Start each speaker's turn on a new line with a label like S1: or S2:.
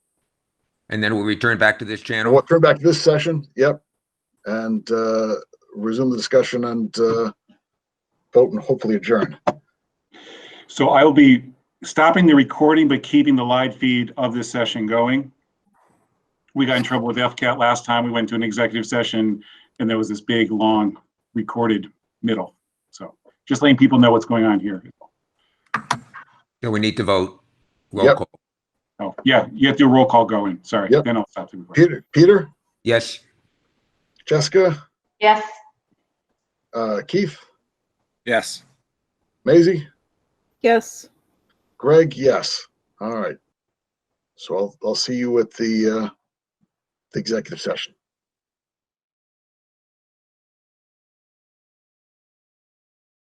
S1: and then we'll return back to this
S2: And
S1: channel.
S2: we'll turn back to this session, yep, and uh, resume the discussion and uh, vote and hopefully adjourn.
S3: So I'll be stopping the recording, but keeping the live feed of this session going. We got in trouble with FCAT last time. We went to an executive session and there was this big, long recorded middle. So just letting people know what's going on here.
S1: So we need to vote. Roll
S2: Yep.
S1: call.
S3: Oh, yeah, you have to do a roll call going. Sorry,
S2: Yep.
S3: then I'll stop the recording.
S2: Peter, Peter,
S1: Yes,
S2: Jessica,
S4: Yes.
S2: uh, Keith,
S5: Yes.
S2: Maisie,
S6: Yes.
S2: Greg, yes. All right. So I'll, I'll see you at the, uh, the executive session.